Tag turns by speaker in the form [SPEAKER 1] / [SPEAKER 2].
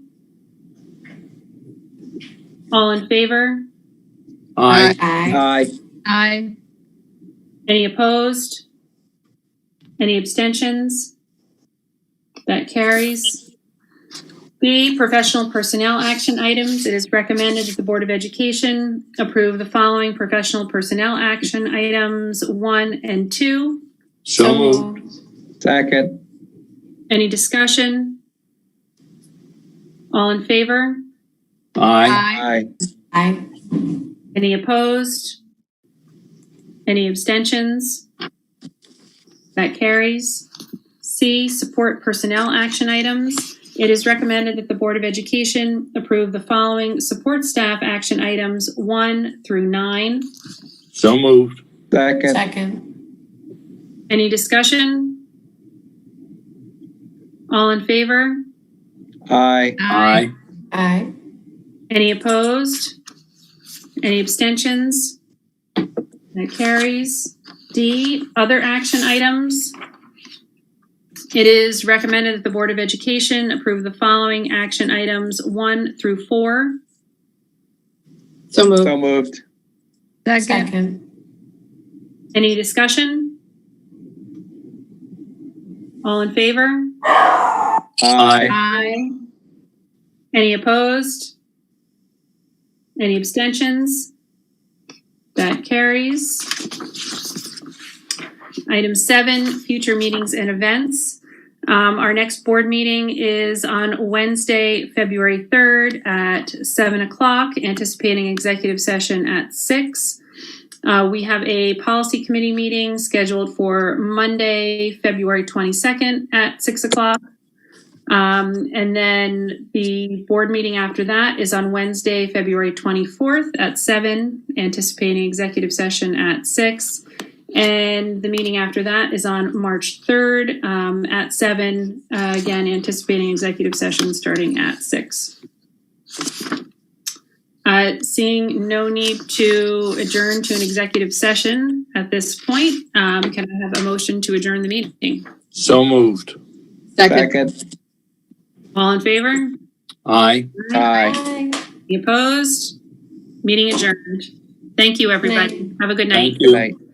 [SPEAKER 1] All in favor?
[SPEAKER 2] Aye.
[SPEAKER 3] Aye.
[SPEAKER 4] Aye.
[SPEAKER 5] Aye.
[SPEAKER 1] Any opposed? Any abstentions? That carries. B, professional personnel action items. It is recommended that the Board of Education approve the following professional personnel action items one and two.
[SPEAKER 2] So moved.
[SPEAKER 4] Second.
[SPEAKER 1] Any discussion? All in favor?
[SPEAKER 2] Aye.
[SPEAKER 5] Aye.
[SPEAKER 4] Aye.
[SPEAKER 3] Aye.
[SPEAKER 1] Any opposed? Any abstentions? That carries. C, support personnel action items. It is recommended that the Board of Education approve the following support staff action items one through nine.
[SPEAKER 2] So moved.
[SPEAKER 4] Second.
[SPEAKER 3] Second.
[SPEAKER 1] Any discussion? All in favor?
[SPEAKER 4] Aye.
[SPEAKER 2] Aye.
[SPEAKER 3] Aye.
[SPEAKER 1] Any opposed? Any abstentions? That carries. D, other action items. It is recommended that the Board of Education approve the following action items one through four.
[SPEAKER 5] So moved.
[SPEAKER 4] So moved.
[SPEAKER 5] Second.
[SPEAKER 3] Second.
[SPEAKER 1] Any discussion? All in favor?
[SPEAKER 4] Aye.
[SPEAKER 5] Aye.
[SPEAKER 1] Any opposed? Any abstentions? That carries. Item seven, future meetings and events. Um, our next board meeting is on Wednesday, February third at seven o'clock, anticipating executive session at six. Uh, we have a policy committee meeting scheduled for Monday, February twenty-second at six o'clock. Um, and then the board meeting after that is on Wednesday, February 24th at 7, anticipating executive session at 6. And the meeting after that is on March 3rd um, at 7, uh, again, anticipating executive session starting at 6. Uh, seeing no need to adjourn to an executive session at this point, um, can I have a motion to adjourn the meeting?
[SPEAKER 2] So moved.
[SPEAKER 5] Second.
[SPEAKER 4] Second.
[SPEAKER 1] All in favor?
[SPEAKER 2] Aye.
[SPEAKER 4] Aye.
[SPEAKER 3] Aye.
[SPEAKER 1] Any opposed? Meeting adjourned. Thank you, everybody. Have a good night.
[SPEAKER 2] Thank
[SPEAKER 4] Good
[SPEAKER 2] you.
[SPEAKER 4] night.